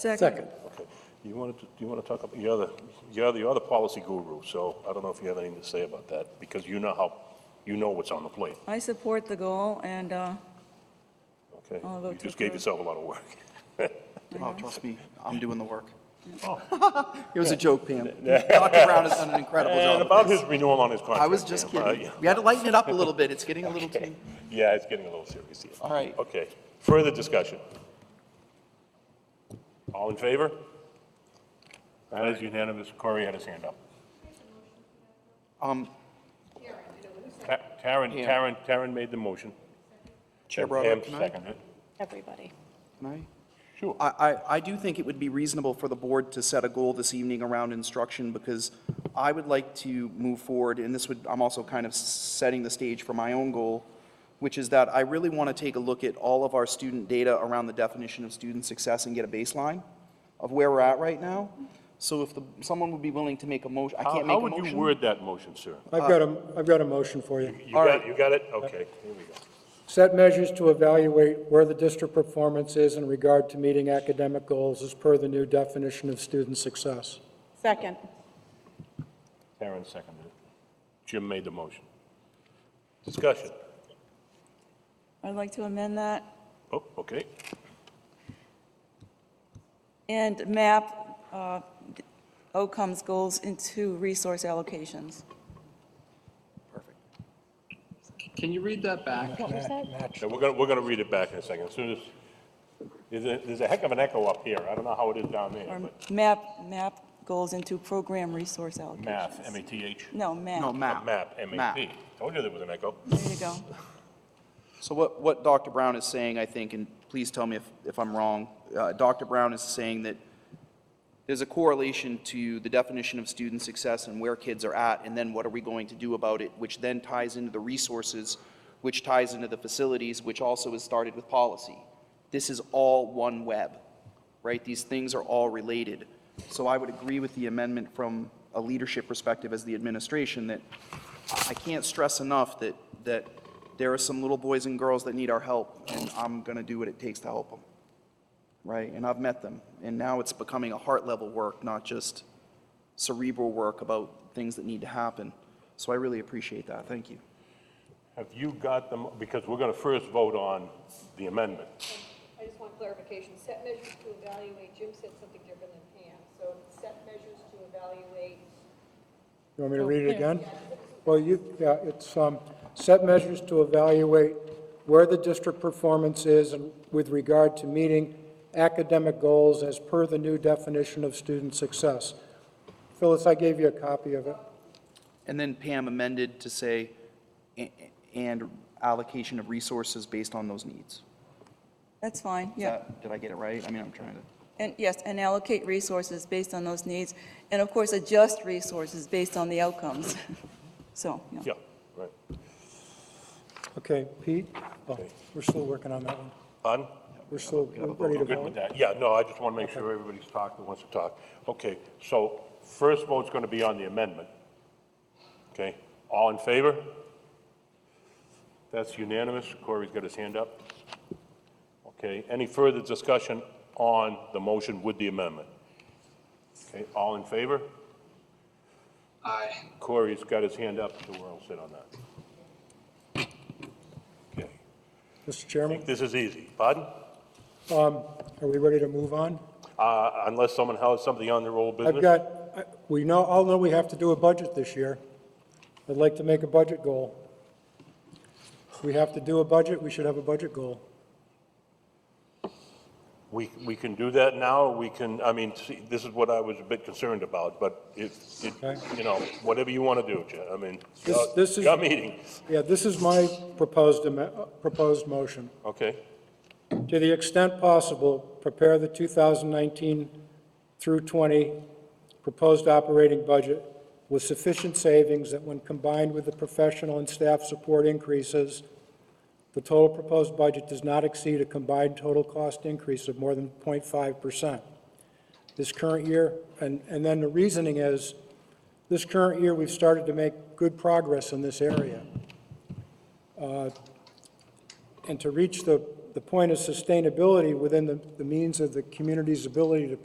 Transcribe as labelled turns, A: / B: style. A: Second.
B: Okay. You wanted to, you want to talk about, you're the, you're the, you're the policy guru, so I don't know if you have anything to say about that, because you know how, you know what's on the plate,
A: I support the goal, and uh,
B: okay?
A: I'll vote
B: You
A: to
B: just gave
A: approve.
B: yourself a lot of work.
C: Oh, trust me, I'm doing the work.
B: Oh.
C: It was a joke, Pam. Dr. Brown has done an incredible
B: And
C: job.
B: about his renewal on his contract.
C: I was just
B: Pam, uh,
C: kidding. We had to lighten it up a little bit. It's getting a little too,
B: Yeah, it's getting a little serious here.
C: all right.
B: Okay, further discussion? All in favor? That is unanimous. Corey had his hand up.
C: Um,
B: Ta- Karen,
C: Yeah.
B: Karen, Karen made the motion.
C: Chair
B: and
C: Broderick,
B: Pam
C: can I-
B: seconded it.
D: everybody.
C: can I?
B: Sure.
C: I, I, I do think it would be reasonable for the board to set a goal this evening around instruction, because I would like to move forward, and this would, I'm also kind of setting the stage for my own goal, which is that I really want to take a look at all of our student data around the definition of student success and get a baseline of where we're at right now. So if the, someone would be willing to make a motion, I
B: How-
C: can't make a
B: How would you
C: motion.
B: word that motion, sir?
E: I've got a, I've got a motion for you.
B: You
C: All
B: got,
C: right.
B: you got it? Okay, here we go.
E: Set measures to evaluate where the district performance is in regard to meeting academic goals as per the new definition of student success.
D: Second.
B: Karen seconded it. Jim made the motion. Discussion.
A: I'd like to amend that
B: Oh, okay.
A: and map uh, d- outcomes goals into resource allocations.
F: Can you read that back?
D: What was that?
B: Now, we're gonna, we're gonna read it back in a second. As soon as, there's a, there's a heck of an echo up here. I don't know how it is down there,
A: Or
B: but
A: map, map goals into program resource allocations.
B: math, M-A-T-H.
A: No,
C: No,
A: map.
C: map.
B: Map, M-A-P. Told you there was an echo.
A: There you go.
C: So what, what Dr. Brown is saying, I think, and please tell me if, if I'm wrong, uh, Dr. Brown is saying that there's a correlation to the definition of student success and where kids are at, and then what are we going to do about it, which then ties into the resources, which ties into the facilities, which also is started with policy. This is all one web, right? These things are all related. So I would agree with the amendment from a leadership perspective as the administration that I- I can't stress enough that, that there are some little boys and girls that need our help, and I'm going to do what it takes to help them right? And I've met them. And now it's becoming a heart level work, not just cerebral work about things that need to happen. So I really appreciate that. Thank you.
B: Have you got them, because we're gonna first vote on the amendment.
G: I just want clarification, set measures to evaluate, Jim said something different than Pam, so set measures to evaluate,
E: You want me to read it again? Well, you, yeah, it's, um, set measures to evaluate where the district performance is in- with regard to meeting academic goals as per the new definition of student success. Phyllis, I gave you a copy of it.
C: And then Pam amended to say, "a- and allocation of resources based on those needs.
A: That's fine,
C: Is
A: yeah.
C: that- Did I get it right? I mean, I'm trying to.
A: And yes, and allocate resources based on those needs, and of course, adjust resources based on the outcomes. So, yeah.
B: Yeah, right.
E: Okay, Pete? Oh, we're still working on that one.
B: On?
E: We're still we're ready to
B: I'm good
E: vote.
B: with that. Yeah, no, I just want to make sure everybody's talked that wants to talk. Okay, so first vote's going to be on the amendment. Okay, all in favor? That's unanimous. Corey's got his hand up. Okay, any further discussion on the motion with the amendment? Okay, all in favor?
F: Aye.
B: Corey's got his hand up, so we're all set on that. Okay,
E: Mr.
B: I
E: Chairman,
B: think this is easy. Pardon?
E: are we ready to move on?
B: Uh, Unless someone has something on their old business?
E: I've got, I- we know, all know we have to do a budget this year. I'd like to make a budget goal. If we have to do a budget, we should have a budget goal.
B: We, we can do that now, we can, I mean, see, this is what I was a bit concerned about, but if, it-
E: Okay.
B: you know, whatever you want to do, Jen, I mean,
E: This-
B: uh,
E: this is-
B: your meeting,
E: Yeah, this is my proposed, am- uh, proposed motion.
B: okay?
E: To the extent possible, prepare the 2019 through 20 proposed operating budget with sufficient savings that when combined with the professional and staff support increases, the total proposed budget does not exceed a combined total cost increase of more than 0.5% this current year. And, and then the reasoning is, this current year, we've started to make good progress in this area. And to reach the the point is sustainability within the, the means of the community's ability to